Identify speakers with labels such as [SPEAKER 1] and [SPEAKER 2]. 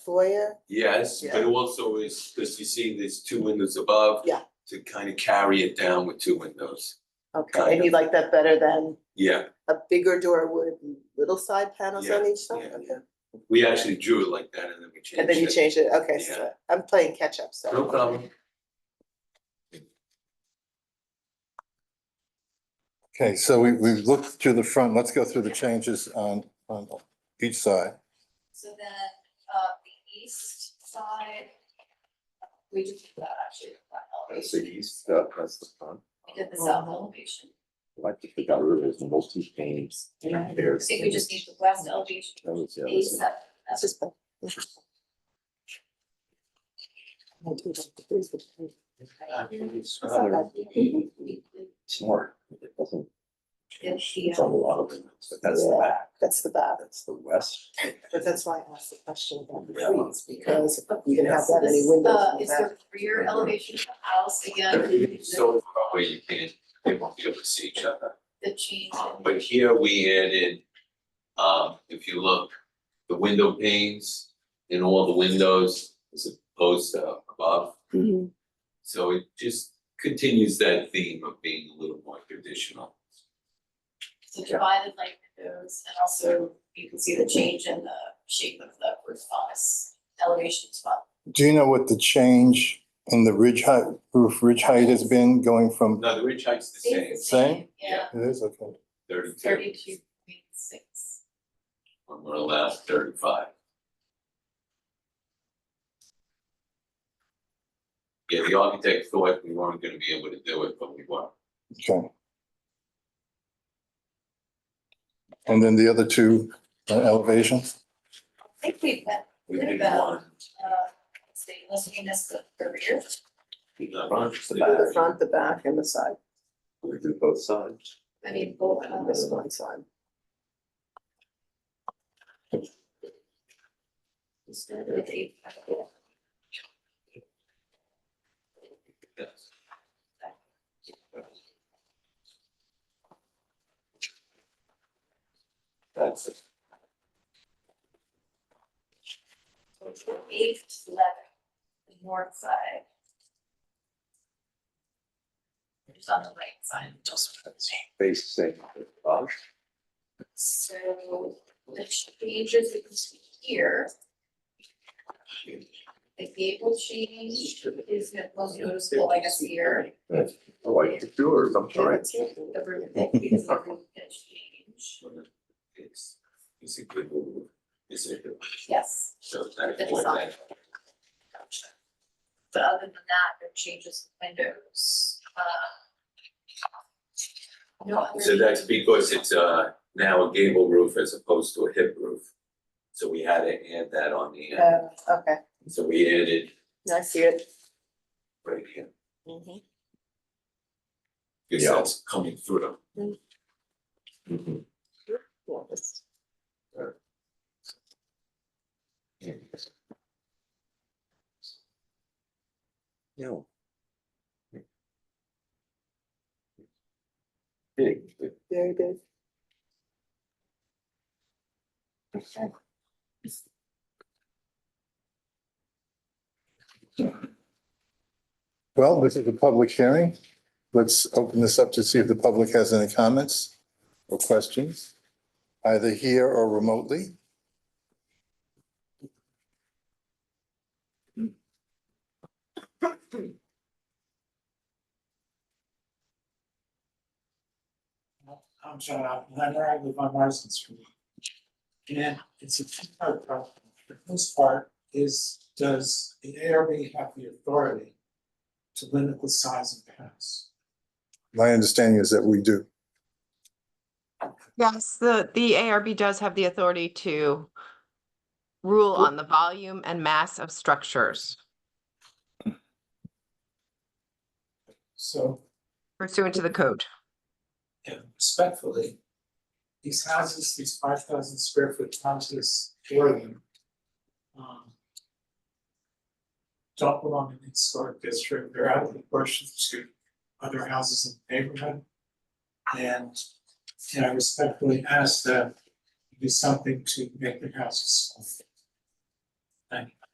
[SPEAKER 1] foyer,
[SPEAKER 2] Yes, but
[SPEAKER 1] Yeah.
[SPEAKER 2] also is, because you see there's two windows above.
[SPEAKER 1] Yeah.
[SPEAKER 2] To kind of carry it down with two windows.
[SPEAKER 1] okay, and you like that better than
[SPEAKER 2] Yeah,
[SPEAKER 1] a bigger door with little side panels on each
[SPEAKER 2] yeah,
[SPEAKER 1] side, okay?
[SPEAKER 2] yeah. We actually drew it like that and then we changed it.
[SPEAKER 1] And then you change it, okay, so
[SPEAKER 2] Yeah.
[SPEAKER 1] I'm playing catch up, so.
[SPEAKER 2] No problem.
[SPEAKER 3] Okay, so we, we've looked through the front, let's go through the changes on, on each side.
[SPEAKER 4] So then, uh, the east side, we just did that actually, that
[SPEAKER 5] That's the
[SPEAKER 4] elevation,
[SPEAKER 5] east, uh, that's the front.
[SPEAKER 4] we did the south elevation.
[SPEAKER 5] Like if they got rid of those multi panes
[SPEAKER 4] Yeah. I
[SPEAKER 5] there.
[SPEAKER 4] think we just need the west elevation,
[SPEAKER 5] That was the other
[SPEAKER 4] east
[SPEAKER 5] side.
[SPEAKER 4] side.
[SPEAKER 1] That's just. better. I do like the threes, but I-
[SPEAKER 5] Uh, "Ah, It's not very
[SPEAKER 4] The,
[SPEAKER 5] Smart, it doesn't, it's
[SPEAKER 4] uh,
[SPEAKER 5] on a lot of them, but that's the back,
[SPEAKER 1] That's the bad,
[SPEAKER 5] that's the west.
[SPEAKER 1] but that's why I asked the question about the
[SPEAKER 5] Yeah.
[SPEAKER 1] threes, because you can have
[SPEAKER 4] so
[SPEAKER 1] that many
[SPEAKER 4] this,
[SPEAKER 1] windows
[SPEAKER 4] uh,
[SPEAKER 1] in the
[SPEAKER 4] is
[SPEAKER 1] back.
[SPEAKER 4] the rear elevation of the house again,
[SPEAKER 2] Everything's so far away, you can't, they won't be able to see each other.
[SPEAKER 4] the change. in-
[SPEAKER 2] But here we added, um, if you look, the window panes in all the windows as opposed to above.
[SPEAKER 1] Mhm.
[SPEAKER 2] So it just continues that theme of being a little more traditional.
[SPEAKER 4] So divided like those, and also you can see the change in the shape of the roof office elevation as well.
[SPEAKER 3] Do you know what the change in the ridge height, roof ridge height has been going from,
[SPEAKER 2] No, the ridge height's the same,
[SPEAKER 4] It's the
[SPEAKER 3] Same?
[SPEAKER 4] Yeah,
[SPEAKER 3] it is, okay.
[SPEAKER 2] thirty-two.
[SPEAKER 4] thirty-two point six.
[SPEAKER 2] When we're allowed thirty-five. Yeah, the architect thought we weren't gonna be able to do it, but we were.
[SPEAKER 3] Okay. And then the other two uh, elevations?
[SPEAKER 4] I think we've got,
[SPEAKER 2] We
[SPEAKER 4] What
[SPEAKER 2] did
[SPEAKER 4] about-
[SPEAKER 2] one,
[SPEAKER 4] uh, state listing as the career.
[SPEAKER 2] not
[SPEAKER 5] Front,
[SPEAKER 2] much,
[SPEAKER 5] the
[SPEAKER 2] but-
[SPEAKER 1] The front, the back, and the side,
[SPEAKER 5] We do both sides.
[SPEAKER 4] I mean, both
[SPEAKER 1] on
[SPEAKER 4] on
[SPEAKER 1] this
[SPEAKER 4] this
[SPEAKER 1] one side.
[SPEAKER 4] one.
[SPEAKER 2] Yes.
[SPEAKER 5] That's it.
[SPEAKER 4] Eight to eleven, the north side. Just on the right side.
[SPEAKER 5] That's facing the garage.
[SPEAKER 4] So the changes we can see here. The gable change is the most noticeable, I guess, here,
[SPEAKER 5] That's- I like the doors, I'm sorry.
[SPEAKER 4] the roof pitch, is the roof pitch change,
[SPEAKER 2] It's, it's a good move, it's a good,
[SPEAKER 4] yes.
[SPEAKER 2] so that
[SPEAKER 4] That's
[SPEAKER 2] point
[SPEAKER 4] all.
[SPEAKER 2] that-
[SPEAKER 4] Gotcha. But other than that, there are changes in windows, uh. No other.
[SPEAKER 2] So that's because it's uh now a gable roof as opposed to a hip roof. So we had to add that on the end,
[SPEAKER 1] Uh, okay,
[SPEAKER 2] so we added
[SPEAKER 1] I see it.
[SPEAKER 2] right here,
[SPEAKER 1] Mhm.
[SPEAKER 2] because
[SPEAKER 5] Yeah.
[SPEAKER 2] that's coming through.
[SPEAKER 5] Mhm.
[SPEAKER 1] Yeah, that's-
[SPEAKER 5] Yeah. Big, big.
[SPEAKER 1] Very good.
[SPEAKER 3] Well, this is a public hearing. Let's open this up to see if the public has any comments or questions, either here or remotely.
[SPEAKER 6] I'm John Oppenheimer, I live on Marsden Street. And it's a two-part problem. The first part is, does the ARB have the authority to limit the size of the house?
[SPEAKER 3] My understanding is that we do.
[SPEAKER 7] Yes, the, the ARB does have the authority to rule on the volume and mass of structures
[SPEAKER 6] So,
[SPEAKER 7] pursuant to the code.
[SPEAKER 6] yeah, respectfully, these houses, these five thousand square foot houses, four of them, um, don't belong in the historic district, they're out of proportion to other houses in the neighborhood. And, and I respectfully ask that you do something to make the houses smaller. Thank you.